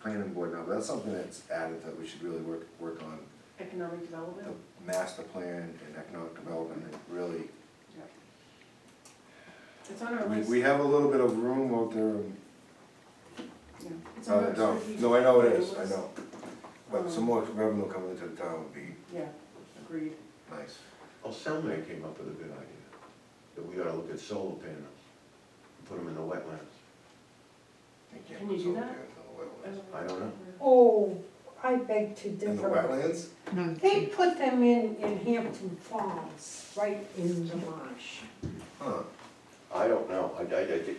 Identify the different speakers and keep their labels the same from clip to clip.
Speaker 1: planning board now, but that's something that's added that we should really work, work on.
Speaker 2: Economic
Speaker 1: The
Speaker 2: development?
Speaker 1: master plan and economic development, it really,
Speaker 2: Yeah. It's on our
Speaker 1: we,
Speaker 2: list.
Speaker 1: we have a little bit of room out there. and-
Speaker 2: Yeah, it's on
Speaker 1: Uh,
Speaker 2: our
Speaker 1: no,
Speaker 2: strategic
Speaker 1: no, I know it is, I
Speaker 2: plan list.
Speaker 1: know. But some more revenue coming into the town would be
Speaker 2: Yeah, agreed.
Speaker 1: nice.
Speaker 3: Well, Selman Oh, came up with a good idea, that we ought to look at solar panels, and put them in the wetlands.
Speaker 1: They can't
Speaker 2: Can you
Speaker 1: put
Speaker 2: do
Speaker 1: something
Speaker 2: that?
Speaker 1: in the wetlands.
Speaker 3: I don't know.
Speaker 4: Oh, I beg to
Speaker 2: Oh,
Speaker 1: In the
Speaker 4: differ.
Speaker 1: wetlands?
Speaker 4: They put them in, in Hampton Falls, right in the marsh.
Speaker 1: Huh.
Speaker 3: I don't know, I, I, I did-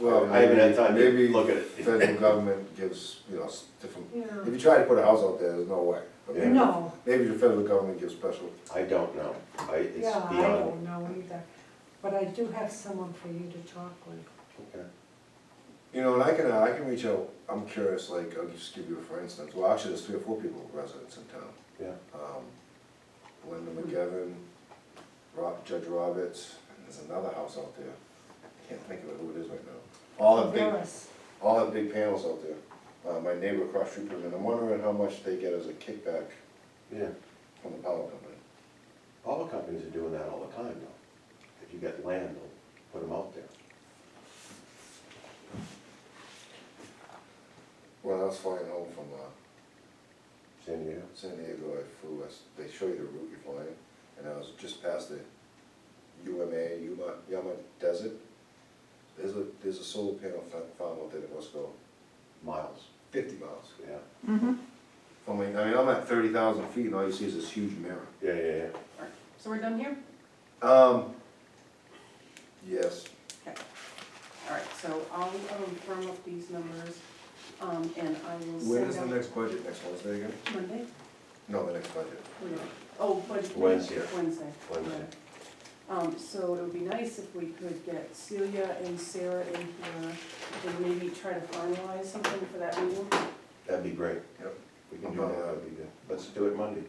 Speaker 1: Well,
Speaker 3: I haven't had time to
Speaker 1: maybe-
Speaker 3: look at
Speaker 1: maybe
Speaker 3: it.
Speaker 1: federal government gives, you know, s- different, if
Speaker 4: Yeah.
Speaker 1: you try to put a house out there, there's no way. But maybe-
Speaker 4: No,
Speaker 1: Maybe the federal government gives special,
Speaker 3: I don't know, I, it's
Speaker 4: yeah, I
Speaker 3: beyond.
Speaker 4: don't know either, but I do have someone for you to talk with.
Speaker 3: Okay.
Speaker 1: you know, and I can, uh, I can reach out, I'm curious, like, I'll just give you a for instance, well, actually, there's three or four people, residents in town.
Speaker 3: Yeah,
Speaker 1: Um, Linda McGivern, Rob, Judge Roberts, and there's another house out there, I can't think of who it is right now. All have big,
Speaker 4: Veras.
Speaker 1: all have big panels out there, uh, my neighbor across the street from me, and I'm wondering how much they get as a kickback
Speaker 3: yeah,
Speaker 1: from the power company.
Speaker 3: all the companies are doing that all the time though. If you get land, they'll put them out there.
Speaker 1: When I was flying home from, uh,
Speaker 3: San Diego,
Speaker 1: San Diego, I flew, us- they show you the route you're flying, and I was just past the UMA, Yuma, Yama Desert. There's a, there's a solar panel fa- farm out there that must go
Speaker 3: miles,
Speaker 1: fifty miles.
Speaker 3: yeah,
Speaker 1: From, like- I mean, I'm at thirty thousand feet, and all you see is this huge mirror.
Speaker 3: yeah, yeah, yeah.
Speaker 2: So we're done here?
Speaker 1: Um, yes,
Speaker 2: All right, so I'll um, firm up these numbers, um, and I will
Speaker 1: when
Speaker 2: send
Speaker 1: is the
Speaker 2: out
Speaker 1: next budget, next Wednesday again?
Speaker 2: Monday?
Speaker 1: No, the next budget.
Speaker 2: Wait, Oh, but.
Speaker 3: Wednesday.
Speaker 2: Wednesday.
Speaker 3: Wednesday.
Speaker 2: yeah. Um, so it would be nice if we could get Celia and Sarah in here, and maybe try to finalize something for that meeting.
Speaker 3: That'd be great.
Speaker 1: Yep.
Speaker 3: We can do that, that'd be good. Let's do it Monday.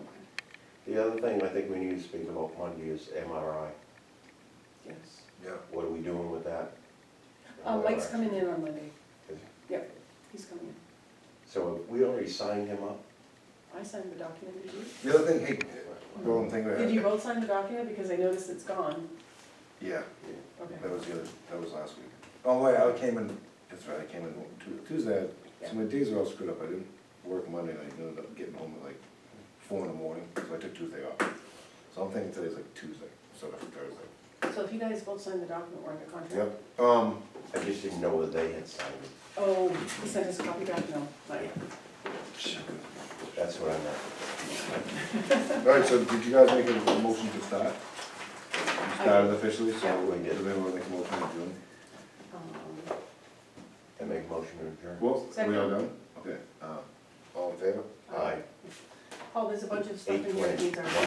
Speaker 2: Okay.
Speaker 3: The other thing I think we need to speak about Monday is MRI.
Speaker 2: Yes.
Speaker 1: Yeah.
Speaker 3: What are we doing with that?
Speaker 1: Oh,
Speaker 2: Uh, Mike's coming in on Monday.
Speaker 3: Is he?
Speaker 2: Yep, he's coming in.
Speaker 3: So have we already signed him up?
Speaker 2: I signed the document, did you?
Speaker 1: The other thing, hey, golden thing. we had-
Speaker 2: Did you both sign the document? Because I noticed it's gone.
Speaker 1: Yeah,
Speaker 2: Okay.
Speaker 1: that was the other, that was last week. Oh, wait, I came in, that's right, I came in Tu- Tuesday, So my days are all screwed up, I didn't work Monday night, and ended up getting home at like four in the morning, so I took Tuesday off. So I'm thinking today's like Tuesday, so that's Thursday.
Speaker 2: So if you guys both signed the document, we're under contract.
Speaker 1: Yep, um,
Speaker 3: I just didn't know whether they had signed it.
Speaker 2: Oh, he sent us a copy back? No, not yet.
Speaker 3: That's what I meant.
Speaker 1: alright, so did you guys make a motion to start? You Started officially,
Speaker 2: Yeah,
Speaker 1: so
Speaker 3: we did.
Speaker 1: does anyone wanna make a motion to adjourn?
Speaker 2: Um,
Speaker 3: And make a motion to adjourn.
Speaker 1: Well, we all
Speaker 2: Second.
Speaker 1: done? Okay, uh, all in favor?
Speaker 3: Aye.
Speaker 2: Paul, there's a bunch of stuff in here that needs our.
Speaker 3: 8:20.